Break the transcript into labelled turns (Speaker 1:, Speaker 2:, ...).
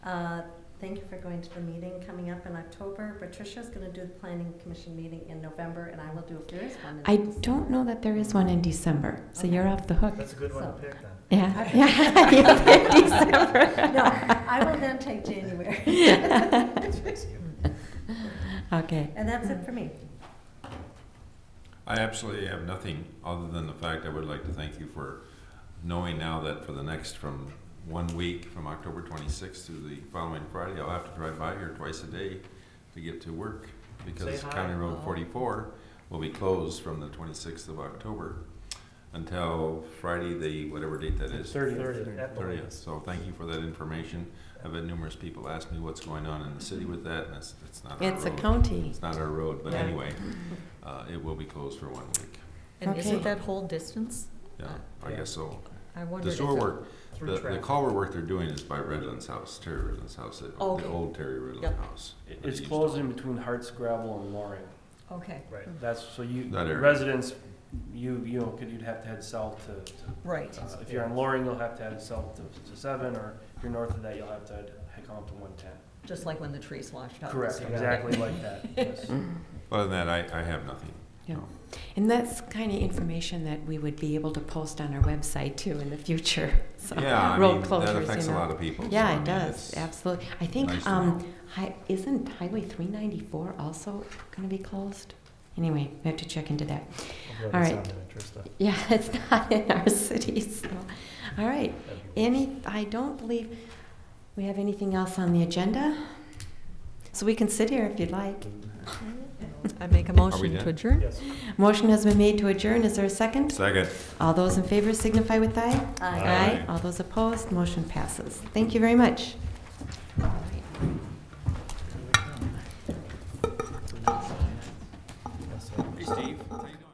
Speaker 1: Uh, Thank you for going to the meeting coming up in October. Patricia's going to do the planning commission meeting in November, and I will do if there is one. in
Speaker 2: I
Speaker 1: December.
Speaker 2: don't know that there is one in December, so
Speaker 1: Okay.
Speaker 2: you're off the hook.
Speaker 3: That's a good one to
Speaker 1: So-
Speaker 3: pick then.
Speaker 2: Yeah, yeah, you picked December.
Speaker 1: No, I will then take January.
Speaker 2: Okay.
Speaker 1: And that's it for me.
Speaker 4: I absolutely have nothing other than the fact I would like to thank you for knowing now that for the next from one week, from October 26th to the following Friday, I'll have to drive by here twice a day to get to work because
Speaker 3: Say hi.
Speaker 4: County Road 44 will be closed from the 26th of October until Friday, the whatever date that is.
Speaker 3: Thirtieth, at the
Speaker 4: 30th.
Speaker 3: latest.
Speaker 4: So thank you for that information. I've had numerous people ask me what's going on in the city with that, and it's, it's not our road.
Speaker 2: It's a county.
Speaker 4: It's not our road, but
Speaker 2: Yeah.
Speaker 4: anyway, uh, it will be closed for one week.
Speaker 5: And
Speaker 2: Okay.
Speaker 5: isn't that whole distance?
Speaker 4: Yeah, I
Speaker 3: Yeah.
Speaker 4: guess so.
Speaker 5: I
Speaker 4: The
Speaker 5: wondered if
Speaker 4: sewer
Speaker 5: it-
Speaker 4: work,
Speaker 3: Through
Speaker 4: the, the
Speaker 3: traffic.
Speaker 4: culvert work they're doing is by Redland's house, Terry Redland's house, the
Speaker 2: Oh,
Speaker 4: the
Speaker 5: Okay.
Speaker 4: old Terry Redland
Speaker 5: Yep.
Speaker 4: house.
Speaker 6: It-
Speaker 4: where
Speaker 6: It's
Speaker 4: they used to
Speaker 6: closed in
Speaker 4: live.
Speaker 6: between Hart's Gravel and Loring.
Speaker 5: Okay,
Speaker 3: Right.
Speaker 6: That's, so you,
Speaker 4: That area.
Speaker 6: residents, you, you know, could, you'd have to head south to,
Speaker 5: right.
Speaker 6: uh, if you're on Loring, you'll have to head south to, to seven, or if you're north of that, you'll have to head head on to one ten.
Speaker 5: Just like when the trees washed out.
Speaker 6: Correct, exactly like that, yes.
Speaker 4: Other than that, I, I have nothing.
Speaker 2: Yeah.
Speaker 4: No.
Speaker 2: And that's kind of information that we would be able to post on our website too in the future. So,
Speaker 4: Yeah, I
Speaker 2: road
Speaker 4: mean,
Speaker 2: closures,
Speaker 4: that affects a
Speaker 2: you know.
Speaker 4: lot of people. so, I
Speaker 2: Yeah,
Speaker 4: mean,
Speaker 2: it does,
Speaker 4: it's-
Speaker 2: absolutely. I think,
Speaker 4: nice to
Speaker 2: um, hi, isn't Highway three ninety-four also gonna be closed? Anyway, we have to check into that.
Speaker 3: Although
Speaker 2: All
Speaker 3: it's
Speaker 2: right.
Speaker 3: not in interest of-
Speaker 2: Yeah, it's not in our city, so, all right.
Speaker 3: that'd be-
Speaker 2: Any, I don't believe we have anything else on the agenda. So we can sit here if you'd like.
Speaker 5: I make a motion
Speaker 4: done?
Speaker 5: to adjourn.
Speaker 3: Yes.
Speaker 2: Motion has been made to adjourn. Is there a second?
Speaker 4: Second.
Speaker 2: All those in favor signify with aye.
Speaker 1: Aye.
Speaker 4: Aye.
Speaker 2: All those opposed, motion passes. Thank you very much.
Speaker 3: Yes, sir.
Speaker 4: Hey, Steve, how you doing?